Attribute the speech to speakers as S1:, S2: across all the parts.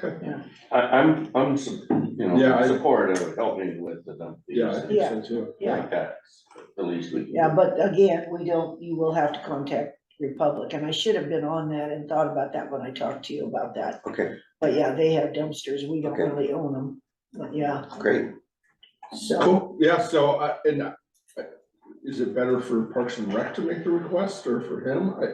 S1: I, I'm, I'm, su- you
S2: Yeah, I-
S1: know, supportive of helping with the dump fees.
S2: Yeah, I think so too.
S1: Like that's the least we can.
S3: Yeah,
S1: do.
S3: but again, we don't, you will have to contact Republic, and I should have been on that and thought about that when I talked to you about that.
S4: Okay,
S3: But yeah, they have dumpsters, we don't
S4: Okay.
S3: really own them, but yeah,
S4: great.
S3: so,
S2: Cool, yeah, so I, and I- is it better for Parks and Rec to make the request or for him? I.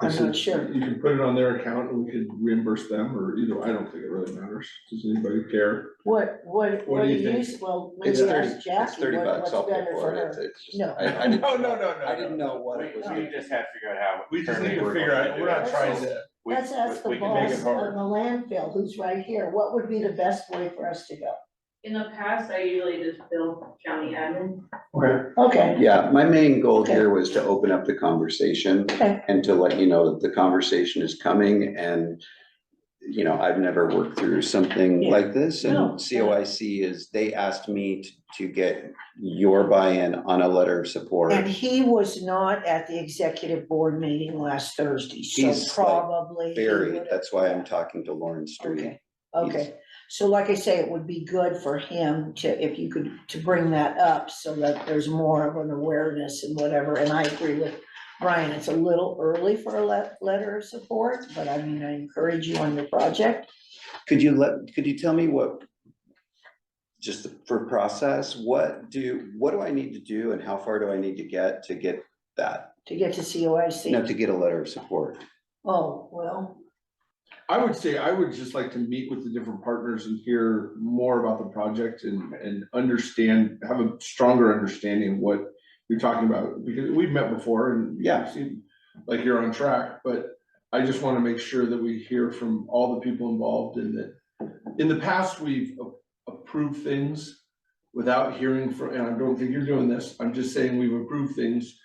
S2: I
S3: I'm
S2: said,
S3: not sure.
S2: You can put it on their account and we can reimburse them or either, I don't think it really matters. Does anybody care?
S3: what, what,
S2: What
S3: what
S2: do
S3: do
S2: you
S3: you
S2: think?
S3: use, well,
S4: It's
S3: maybe
S4: thirty,
S3: ask
S4: it's
S3: Jackie
S4: thirty
S3: what-
S4: bucks,
S3: what's
S4: I'll pay
S3: better for
S4: for it, it's,
S3: her.
S4: it's just,
S3: No.
S4: I, I didn't.
S2: Oh, no,
S4: I didn't know what it was.
S5: We just have to figure out how. internally we're gonna do it.
S3: trying
S2: to.
S1: We-
S3: Let's ask the
S1: we can make it
S3: boss of the
S1: hard.
S3: landfill, who's right here, what would be the best way for us to go?
S6: In the past, I usually just bill county admin.
S3: Okay,
S4: Yeah, my main goal
S3: Okay.
S4: here was to open up the conversation
S3: Okay.
S4: and to let you know that the conversation is coming and, you know, I've never worked through something
S3: Yeah.
S4: like this and
S3: No, yeah.
S4: COIC is, they asked me t- to get your buy-in on a letter of support.
S3: and he was not at the executive board meeting last Thursday, so
S4: He's, like,
S3: probably. he
S4: Barry,
S3: would've-
S4: that's why I'm talking to Lauren Street.
S3: Okay, okay, so like I say, it would be good for him to, if you could, to bring that up so that there's more of an awareness and whatever, and I agree with Brian, it's a little early for a le- letter of support, but I mean, I encourage you on your project.
S4: Could you let, could you tell me what, just for process, what do, what do I need to do and how far do I need to get to get that?
S3: To get to
S4: No,
S3: COIC,
S4: to get a letter of support.
S3: oh, well,
S2: I would say I would just like to meet with the different partners and hear more about the project and, and understand, have a stronger understanding of what you're talking about, because we've met before and yeah,
S4: Yeah.
S2: seem like you're on track, but I just want to make sure that we hear from all the people involved and that in the past, we've a- approved things without hearing from, and I don't think you're doing this, I'm just saying we've approved things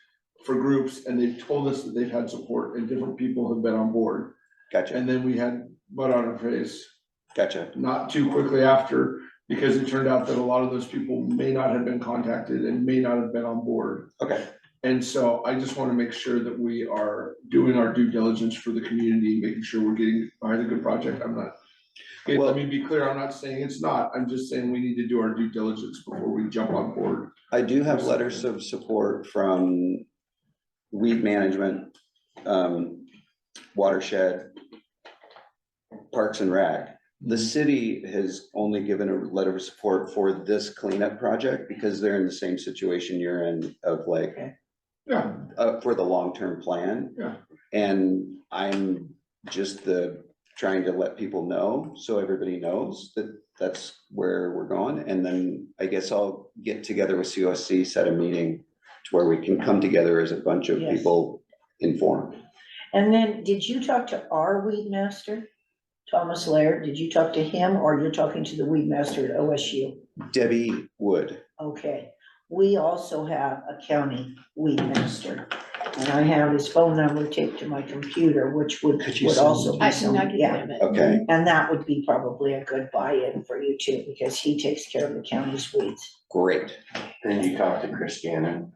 S2: for groups and they've told us that they've had support and different people have been on board.
S4: Gotcha,
S2: And then we had butt on our face
S4: gotcha.
S2: not too quickly after, because it turned out that a lot of those people may not have been contacted and may not have been on board.
S4: Okay,
S2: And so I just want to make sure that we are doing our due diligence for the community, making sure we're getting behind a good project. I'm not. Okay,
S4: Well-
S2: let me be clear, I'm not saying it's not. I'm just saying we need to do our due diligence before we jump on board.
S4: I do have letters of support from weed management, um, watershed, parks and rec. The city has only given a letter of support for this cleanup project because they're in the same situation you're in of like,
S2: Yeah,
S4: uh, for the long-term plan.
S2: Yeah.
S4: And I'm just the, trying to let people know, so everybody knows that that's where we're going. And then I guess I'll get together with COSC, set a meeting to where we can come together as a bunch of
S3: Yes.
S4: people informed.
S3: and then, did you talk to our weed master? Thomas Laird, did you talk to him, or you're talking to the weed master at OSU?
S4: Debbie Wood,
S3: Okay, we also have a county weed master, and I have his phone number taped to my computer, which would,
S4: Could you
S3: would
S4: send
S3: also
S4: me
S3: be some, yeah.
S4: okay,
S3: And that would be probably a good buy-in for you too, because he takes care of the county's weeds.
S4: great.
S1: And you talk to Chris Gannon.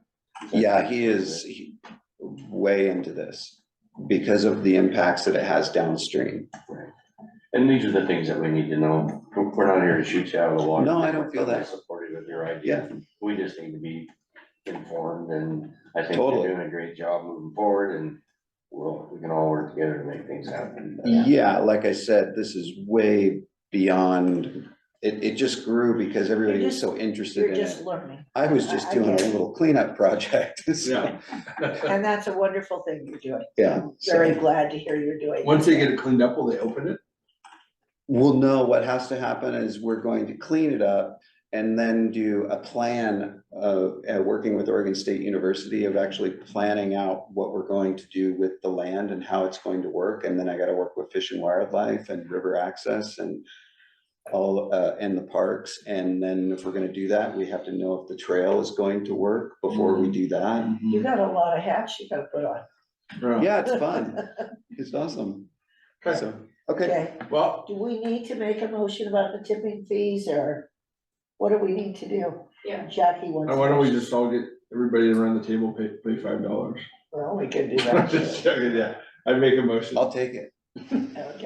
S4: Yeah, he is he- way into this because of the impacts that it has downstream.
S1: And these are the things that we need to know. We're not here to shoot you out of the water.
S4: No, I don't feel that.
S1: Supportive of your idea. We just need to be informed and I think
S4: Totally.
S1: you're doing a great job moving forward and we'll, we can all work together to make things happen.
S4: Yeah, like I said, this is way beyond, it, it just grew because everybody was so interested
S3: You're
S4: in
S3: just
S4: it.
S3: learning,
S4: I was just
S3: I- I
S4: doing a
S3: get it.
S4: little cleanup project, so,
S3: and that's a wonderful thing you're doing.
S4: yeah. so
S3: Very glad to hear you're doing.
S2: Once they get it cleaned up, will they open it?
S4: We'll know what has to happen is we're going to clean it up and then do a plan of, uh, working with Oregon State University of actually planning out what we're going to do with the land and how it's going to work. And then I gotta work with Fish and Wildlife and River Access and all, uh, and the parks, and then if we're gonna do that, we have to know if the trail is going to work before we do that.
S3: You got a lot of hats you gotta put on,
S2: Yeah.
S4: Yeah, it's fun, it's awesome,
S2: Okay,
S4: so, okay,
S3: okay?
S2: well,
S3: Do we need to make a motion about the tipping fees, or what do we need to do?
S6: Yeah.
S3: Jackie wants.
S2: why don't we just all get, everybody around the table pay, pay five dollars?
S3: Well, we could do that.
S2: Just
S3: too.
S2: joking, Yeah, I make a motion.
S4: I'll take it.
S3: Okay.